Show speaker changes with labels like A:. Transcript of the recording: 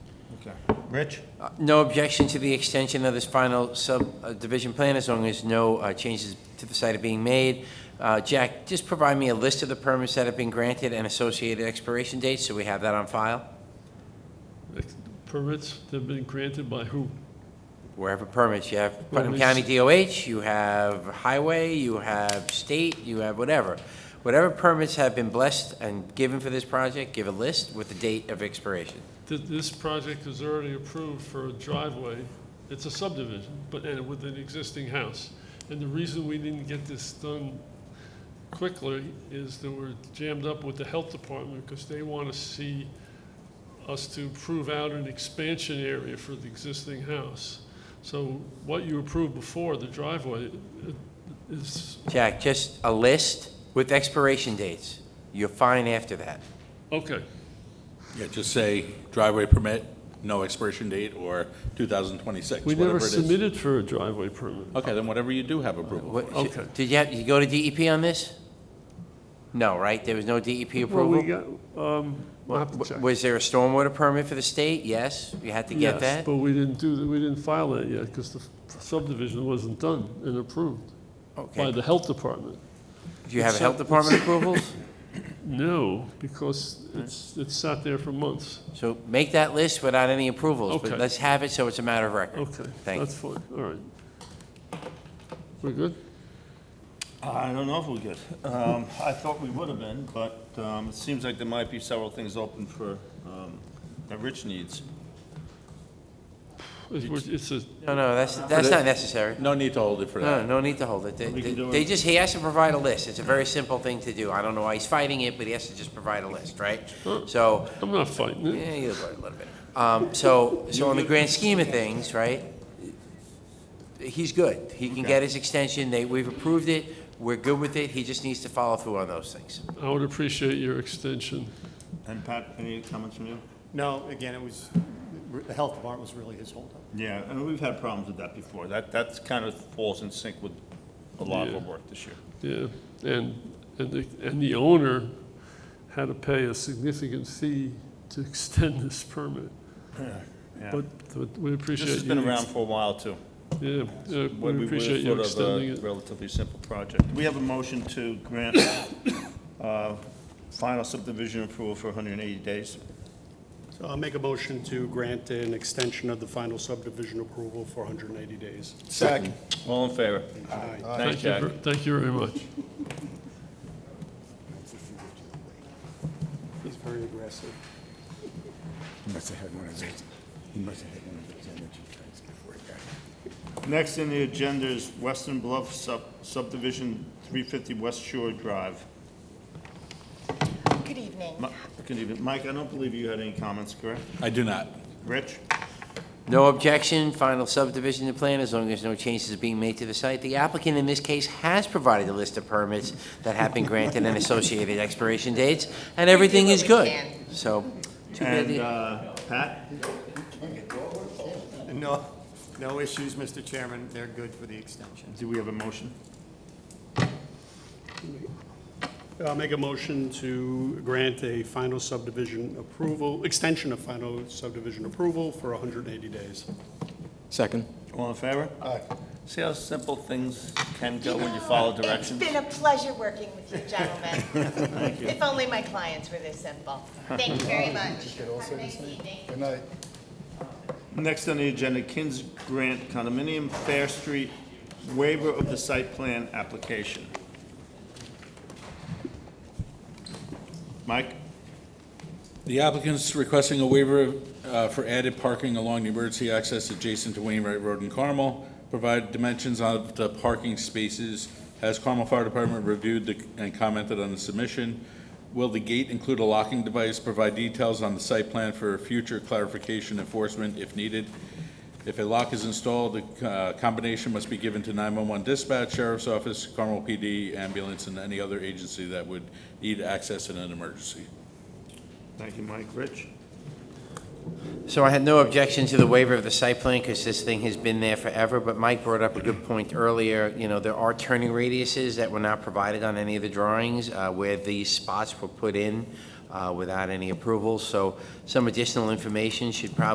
A: Okay. Rich?
B: Uh, No objection to the extension of this final subdivision plan, as long as no uh, changes to the site are being made. Uh, Jack, just provide me a list of the permits that have been granted and associated expiration dates, so we have that on file,
C: Ex- Permits that have been granted by who?
B: wherever permits. You have Putnam
C: Well,
B: County
C: it's-
B: DOH, you have highway, you have state, you have whatever. Whatever permits have been blessed and given for this project, give a list with the date of expiration.
C: Th- This project is already approved for a driveway. It's a subdivision, but and with an existing house. And the reason we didn't get this done quickly is that we're jammed up with the health department because they want to see us to prove out an expansion area for the existing house. So what you approved before, the driveway, it- is,
B: Jack, just a list with expiration dates. You're fine after that.
C: okay,
D: Yeah, just say driveway permit, no expiration date, or 2026,
C: We
D: whatever
C: never
D: it is.
C: submitted for a driveway permit.
D: Okay, then whatever you do have approval
B: What-
D: for.
C: Okay.
B: Did you have, you go to DEP on this? No, right? There was no DEP
C: Well, we
B: approval?
C: got, um, we'll have to
B: W-
C: check.
B: Was there a stormwater permit for the state? Yes, you had to get
C: Yes,
B: that?
C: But we didn't do, that- we didn't file that yet because the subdivision wasn't done and approved by
B: Okay.
C: the health department.
B: Do you have health department approvals?
C: No, because it's, it's sat there for months.
B: So make that list without any approvals, but
C: Okay.
B: let's have it so it's a matter of record.
C: Okay,
B: Thank
C: that's
B: you.
C: fine, all right. We're good?
A: I don't know if we're good. Um, I thought we would have been, but, um, it seems like there might be several things open for, um, that Rich needs.
C: It's- we're- It's a,
B: No, no, that's, that's not necessary.
D: No need to hold it for
B: No,
D: that.
B: no need to hold it. They,
A: We
B: they
A: can do it.
B: they just, he has to provide a list. It's a very simple thing to do. I don't know why he's fighting it, but he has to just provide a list, right? So,
C: I'm not fighting it.
B: Yeah, you a little bit. Um, so, so in the grand scheme of things, right, he's good. He can get his extension, they, we've approved it, we're good with it, he just needs to follow through on those things.
C: I would appreciate your extension.
A: And Pat, any comments from you?
E: No, again, it was, the health department was really his holdup.
A: Yeah, and we've had problems with that before. That, that's kind of falls in sync with a lot of our
C: Yeah.
A: work this year.
C: Yeah, and, and the, and the owner had to pay a significant fee to extend this permit.
A: Yeah.
C: But, but we appreciate
A: This
C: you.
A: has been around for a while, too.
C: Yeah, yeah,
A: What
C: we
A: were
C: appreciate you
A: sort of a
C: extending it.
A: Relatively simple project. We have a motion to grant uh, final subdivision approval for 180 days.
E: So I'll make a motion to grant an extension of the final subdivision approval for 180 days.
A: Second. All in favor?
E: Aye.
A: Thanks,
C: Thank you,
A: Jack.
C: ver- thank you very much.
E: He's very aggressive.
F: He must have had one of those, he must have had one of those energy drinks before he got here.
A: Next on the agenda is Western Bluff sub subdivision, 350 West Shore Drive.
G: Good evening.
A: Mi- Good evening. Mike, I don't believe you had any comments, correct?
D: I do not.
A: Rich?
B: No objection, final subdivision to plan, as long as no changes are being made to the site. The applicant in this case has provided a list of permits that have been granted and associated expiration dates, and everything
G: what
B: is
G: we
B: good.
G: can.
B: So, too bad,
A: And
B: the-
A: uh, Pat?
E: No, no issues, Mr. Chairman. They're good for the extension.
A: Do we have a motion?
E: I'll Uh, make a motion to grant a final subdivision approval, extension of final subdivision approval for 180 days.
H: Second.
A: All in favor? Aye. See how simple things can go when you follow directions?
G: It's been a pleasure working with you gentlemen. If only my clients were this simple. Thank you very much. Have a nice evening.
A: Next on the agenda, Kins Grant Condominium, Fair Street, waiver of the site plan application. Mike?
D: The applicant's requesting a waiver uh, for added parking along the emergency access adjacent to Wainwright Road in Carmel. Provide dimensions of the parking spaces. Has Carmel Fire Department reviewed the- and commented on the submission? Will the gate include a locking device? Provide details on the site plan for future clarification enforcement if needed. If a lock is installed, the uh, combination must be given to 911 dispatch, sheriff's office, Carmel PD, ambulance, and any other agency that would need access in an emergency.
A: Thank you, Mike. Rich?
B: So I had no objection to the waiver of the site plan because this thing has been there forever, but Mike brought up a good point earlier. You know, there are turning radiuses that were not provided on any of the drawings uh, where these spots were put in uh, without any approval. So some additional information should probably